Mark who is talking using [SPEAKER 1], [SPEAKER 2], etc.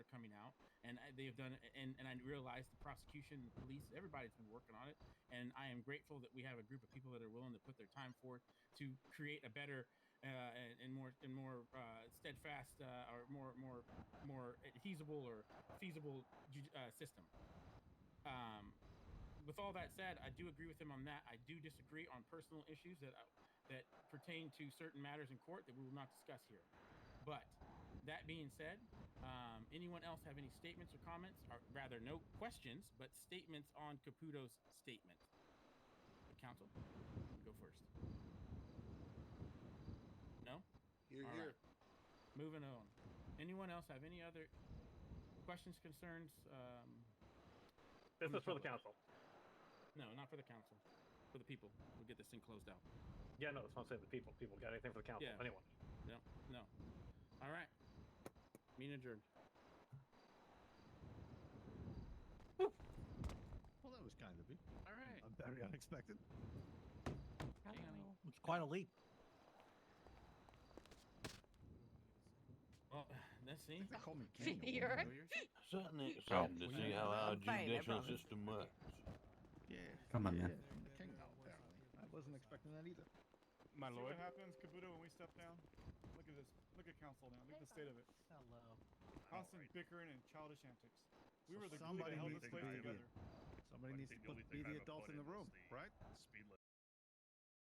[SPEAKER 1] they have done, and and I realize the prosecution, the police, everybody's been working on it, and I am grateful that we have a group of people that are willing to put their time forth to create a better uh, and, and more and more uh, steadfast uh, or more more more adhesible or feasible ju- uh, system. Um, with all that said, I do agree with him on that. I do disagree on personal issues that uh, that pertain to certain matters in court that we will not discuss here. But that being said, um, anyone else have any statements or comments, or rather, no questions, but statements on Caputo's statement? Council, go first. No.
[SPEAKER 2] You're
[SPEAKER 1] All
[SPEAKER 2] here.
[SPEAKER 1] right. Moving on. Anyone else have any other questions, concerns? Um, From
[SPEAKER 3] This
[SPEAKER 1] the
[SPEAKER 3] is for the
[SPEAKER 1] public.
[SPEAKER 3] council.
[SPEAKER 1] no, not for the council. For the people. We'll get this thing closed out.
[SPEAKER 3] Yeah, no, that's what I'm saying. The people, people got anything for the council?
[SPEAKER 1] Yeah.
[SPEAKER 3] Anyone?
[SPEAKER 1] No, no. All right. Meeting adjourned.
[SPEAKER 4] Well, that was kind of me.
[SPEAKER 1] All right.
[SPEAKER 4] I'm very unexpected.
[SPEAKER 1] Hey, honey.
[SPEAKER 5] It's quite a leap.
[SPEAKER 1] Well, let's see.
[SPEAKER 4] They call me
[SPEAKER 6] You're-
[SPEAKER 4] Daniel. You're
[SPEAKER 6] You're-
[SPEAKER 4] yours?
[SPEAKER 7] Certainly exciting to
[SPEAKER 4] well,
[SPEAKER 7] see
[SPEAKER 4] yeah,
[SPEAKER 7] how our
[SPEAKER 6] I'm fine, I
[SPEAKER 7] judicial
[SPEAKER 6] promise.
[SPEAKER 7] system works.
[SPEAKER 4] Yeah.
[SPEAKER 8] Come on,
[SPEAKER 4] yeah,
[SPEAKER 8] man.
[SPEAKER 4] I'm the king now, apparently. I wasn't expecting that either.
[SPEAKER 9] My lord. See what happens, Kabuto, when we step down? Look at this. Look at council now. Look at the state of it.
[SPEAKER 5] Hello.
[SPEAKER 9] Constant bickering and childish antics. We
[SPEAKER 4] So
[SPEAKER 9] were the glue
[SPEAKER 4] somebody
[SPEAKER 9] that held
[SPEAKER 4] needs
[SPEAKER 9] this
[SPEAKER 4] to
[SPEAKER 9] place
[SPEAKER 4] be the-
[SPEAKER 9] together.
[SPEAKER 4] Somebody needs to put, be the adult in the room, right?